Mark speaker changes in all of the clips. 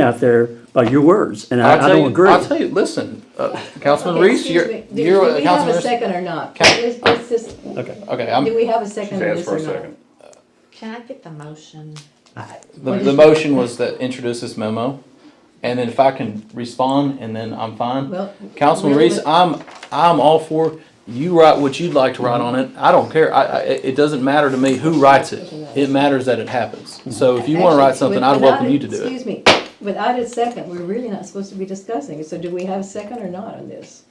Speaker 1: out there by your words, and
Speaker 2: I'll
Speaker 1: I, I
Speaker 2: tell
Speaker 1: don't
Speaker 2: you-
Speaker 1: agree.
Speaker 2: I'll tell you, listen, uh, Councilman
Speaker 3: Okay,
Speaker 2: Reese,
Speaker 3: excuse
Speaker 2: you're,
Speaker 3: me. Do-
Speaker 2: you're,
Speaker 3: Do we have
Speaker 2: Councilman
Speaker 3: a
Speaker 2: Reese-
Speaker 3: second or not?
Speaker 2: Ca-
Speaker 3: Let's- let's just-
Speaker 1: Okay.
Speaker 2: Okay, I'm,
Speaker 3: Do we have a second
Speaker 4: She's
Speaker 3: on
Speaker 4: asked
Speaker 3: this
Speaker 4: for
Speaker 3: or
Speaker 4: a
Speaker 3: not?
Speaker 4: second.
Speaker 5: Can I get the motion?
Speaker 2: the, the motion was that introduce this memo, and then if I can respond, and then I'm fine.
Speaker 3: Well,
Speaker 2: Councilman
Speaker 3: wait a
Speaker 2: Reese,
Speaker 3: minute.
Speaker 2: I'm, I'm all for, you write what you'd like to write on it, I don't care, I, I, it it doesn't matter to me who writes it. It matters that it happens, so if you wanna write
Speaker 3: Actually,
Speaker 2: something, I'd
Speaker 3: without
Speaker 2: welcome
Speaker 3: it-
Speaker 2: you to do it.
Speaker 3: Excuse me, without a second, we're really not supposed to be discussing it, so do we have a second or not on this?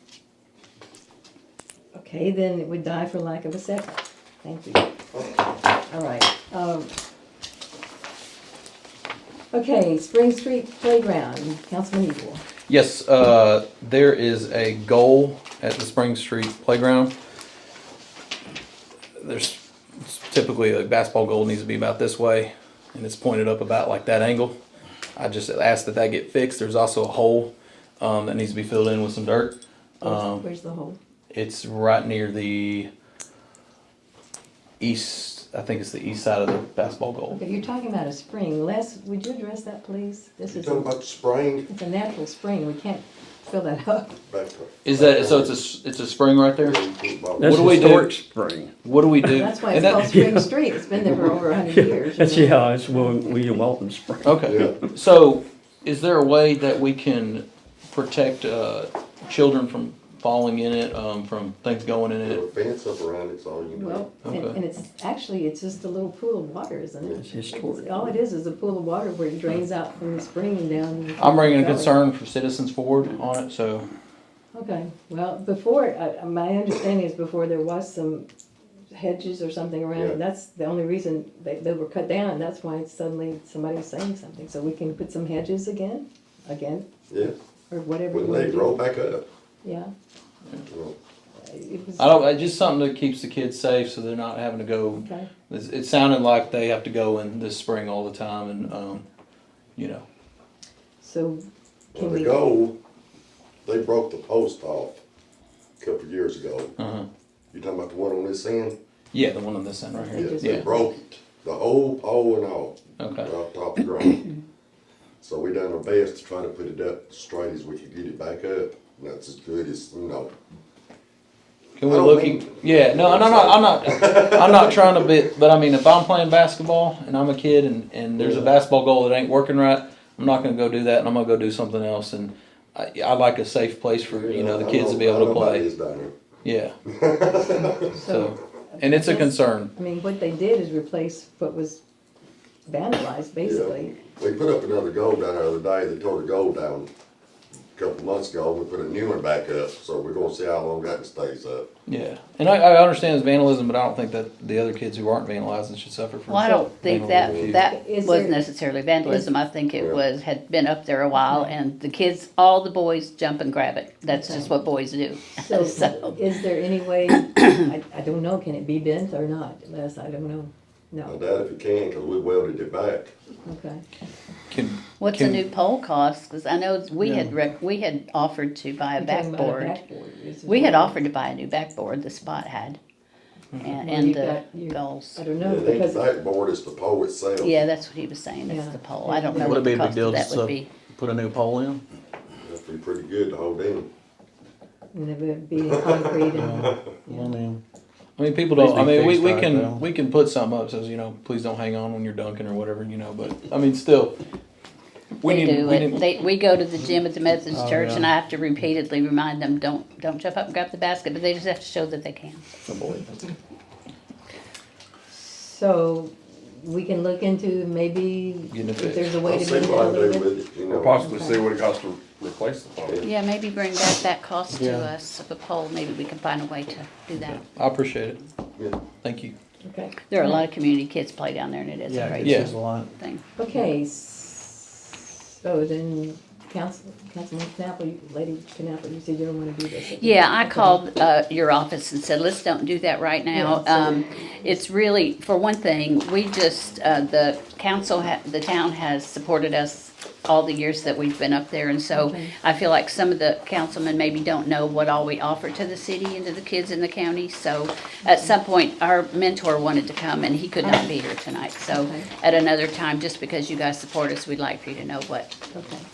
Speaker 3: Okay, then it would die for lack of a second, thank you. All right, um. Okay, Spring Street Playground, Councilman Evil.
Speaker 2: Yes, uh, there is a goal at the Spring Street Playground. There's typically a basketball goal needs to be about this way, and it's pointed up about like that angle. I just asked that that get fixed. There's also a hole um, that needs to be filled in with some dirt. Um,
Speaker 3: Where's- Where's the hole?
Speaker 2: It's right near the east. I think it's the east side of the basketball goal.
Speaker 3: Okay, you're talking about a spring, Les, would you address that, please? This
Speaker 4: You
Speaker 3: is,
Speaker 4: talking
Speaker 3: a-
Speaker 4: about spraying?
Speaker 3: it's a natural spring, we can't fill that up.
Speaker 4: back-
Speaker 2: Is that so? It's a s- it's a spring right there.
Speaker 1: That's
Speaker 2: What do we do?
Speaker 1: historic Spring.
Speaker 2: What do we do?
Speaker 3: That's why
Speaker 2: And
Speaker 3: it's
Speaker 2: that-
Speaker 3: called Spring Street, it's been there for over a hundred years. you
Speaker 1: That's,
Speaker 3: know.
Speaker 1: yeah, it's William, William Walton
Speaker 2: Oh,
Speaker 1: Spring.
Speaker 2: Okay, so is there a way that we can protect, uh, children from falling in it, um, from things going in
Speaker 4: Put a
Speaker 2: it?
Speaker 4: fence up around it's all you need.
Speaker 3: Well, and,
Speaker 2: Okay.
Speaker 3: and it's, actually, it's just a little pool of water, isn't it?
Speaker 1: It's historic.
Speaker 3: All it is is a pool of water where it drains out from the spring and down.
Speaker 2: I'm bringing a
Speaker 3: the valley.
Speaker 2: concern for citizens forward on it, so,
Speaker 3: Okay, well, before, uh, my understanding is before there was some hedges or something around,
Speaker 4: Yeah.
Speaker 3: it. that's the only reason they, they were cut down, and that's why suddenly somebody was saying something, so we can put some hedges again, again,
Speaker 4: Yeah,
Speaker 3: or whatever. you
Speaker 4: when
Speaker 3: wanna
Speaker 4: they
Speaker 3: do.
Speaker 4: roll back up.
Speaker 3: Yeah.
Speaker 4: Well,
Speaker 3: it was-
Speaker 2: I don't, it's just something that keeps the kids safe, so they're not having to go.
Speaker 3: Okay,
Speaker 2: It's- It sounded like they have to go in this spring all the time and, um, you know,
Speaker 3: so
Speaker 4: Well,
Speaker 3: can
Speaker 4: the
Speaker 3: we?
Speaker 4: goal, they broke the post off a couple of years ago.
Speaker 2: uh-huh.
Speaker 4: You talking about the one on this end?
Speaker 2: Yeah, the one on this end right here,
Speaker 3: Yes.
Speaker 4: They
Speaker 2: yeah,
Speaker 4: broke it, the whole pole and all, right
Speaker 2: okay,
Speaker 4: off top the ground. So we done our best to try to put it up straight as we could get it back up. That's as good as, you know,
Speaker 2: can we
Speaker 4: I don't
Speaker 2: look,
Speaker 4: mean-
Speaker 2: in- yeah, no, no, no, I'm not, I'm not trying to be, but I mean, if I'm playing basketball and I'm a kid and, and there's a basketball goal that ain't working right, I'm not gonna go do that and I'm gonna go do something else and I, I like a safe place for, you know, the
Speaker 4: I
Speaker 2: kids to be able
Speaker 4: I
Speaker 2: to
Speaker 4: know about
Speaker 2: play,
Speaker 4: this down here.
Speaker 2: yeah, so, and it's a concern.
Speaker 3: I mean, what they did is replace what was vandalized, basically.
Speaker 4: We put up another goal down there the other day, they tore the goal down a couple months ago, we put a new one back up, so we're gonna see how long that stays up.
Speaker 2: Yeah, and I, I understand it's vandalism, but I don't think that the other kids who aren't vandalizing should suffer from.
Speaker 6: Well, I don't think that,
Speaker 2: vandalism.
Speaker 6: that
Speaker 3: Is
Speaker 6: was
Speaker 3: there-
Speaker 6: necessarily vandalism, I think
Speaker 4: Yeah.
Speaker 6: it was, had been up there a while,
Speaker 3: Mm-hmm.
Speaker 6: and the kids, all the boys jump and grab it, that's just what boys do.
Speaker 3: So is there any way, I, I don't know, can it be bent or not, Les, I don't know,
Speaker 4: I
Speaker 3: no,
Speaker 4: doubt if you can, cause we welded it back.
Speaker 3: okay.
Speaker 2: Can-
Speaker 6: What's a
Speaker 2: can-
Speaker 6: new pole cost, cause I know we had rec, we had offered to buy a
Speaker 3: You're talking about
Speaker 6: backboard,
Speaker 3: backboard, is it?
Speaker 6: we had offered to buy a new backboard, the spot had, and,
Speaker 3: Mm-hmm. Well,
Speaker 6: and
Speaker 3: you've
Speaker 6: the
Speaker 3: got- you-
Speaker 6: goals.
Speaker 3: I don't
Speaker 4: Yeah,
Speaker 3: know,
Speaker 4: it ain't
Speaker 3: because,
Speaker 4: the backboard, it's the pole itself.
Speaker 6: Yeah, that's what he was saying, it's
Speaker 3: Yeah.
Speaker 6: the pole, I don't know
Speaker 2: Would
Speaker 6: what
Speaker 2: it be
Speaker 6: the
Speaker 2: a big
Speaker 6: cost
Speaker 2: deal
Speaker 6: of
Speaker 2: to
Speaker 6: that would
Speaker 2: sub-
Speaker 6: be.
Speaker 2: put a new pole in?
Speaker 4: That'd be pretty good to hold in.
Speaker 3: and it would be concrete and,
Speaker 7: I mean,
Speaker 2: I mean, people
Speaker 7: Please
Speaker 2: don't. I
Speaker 7: be
Speaker 2: mean, we,
Speaker 7: fixed
Speaker 2: we
Speaker 7: right
Speaker 2: can
Speaker 7: now.
Speaker 2: we can put something up says you know please don't hang on when you're dunking or whatever you know. But I mean, still, we
Speaker 6: They
Speaker 2: need
Speaker 6: do
Speaker 2: we
Speaker 6: it.
Speaker 2: need-
Speaker 6: They, we go to the gym at the Methodist
Speaker 7: Oh,
Speaker 6: church
Speaker 7: yeah.
Speaker 6: and I have to repeatedly remind them, don't, don't jump up and grab the basket, but they just have to show that they can.
Speaker 3: so we can look into maybe
Speaker 2: Getting it
Speaker 3: if
Speaker 2: fixed.
Speaker 3: there's a way
Speaker 4: I'll
Speaker 3: to
Speaker 4: see
Speaker 3: bend it
Speaker 4: what
Speaker 3: a
Speaker 4: I can do
Speaker 3: little bit.
Speaker 4: with it, you
Speaker 7: or
Speaker 4: know.
Speaker 7: possibly see what it costs to replace the pole.
Speaker 6: Yeah, maybe bring back that cost to
Speaker 7: Yeah.
Speaker 6: us of a poll, maybe we can find a way to do that.
Speaker 2: I appreciate it.
Speaker 4: Yeah.
Speaker 2: Thank you.
Speaker 3: Okay,
Speaker 6: There are a lot of community kids play down there and it is a
Speaker 7: Yeah,
Speaker 6: great
Speaker 2: Yeah.
Speaker 7: it's a lot.
Speaker 6: thing.
Speaker 3: okay, s- so then, Council, Councilman Knappel, you- Lady Knappel, you said you don't wanna do this.
Speaker 6: Yeah, I
Speaker 3: Okay.
Speaker 6: called uh, your office and said, let's don't do that right now.
Speaker 3: Yeah, so-
Speaker 6: Um, It's really, for one thing, we just, uh, the council, ha- the town has supported us all the years that we've been up there. And so I feel like some of the councilmen maybe don't know what all we offer to the city and to the kids in the county. So at some point, our mentor wanted to come and he could not be here tonight. So
Speaker 3: Okay.
Speaker 6: at another time, just because you guys support us, we'd like for you to know what
Speaker 3: Okay.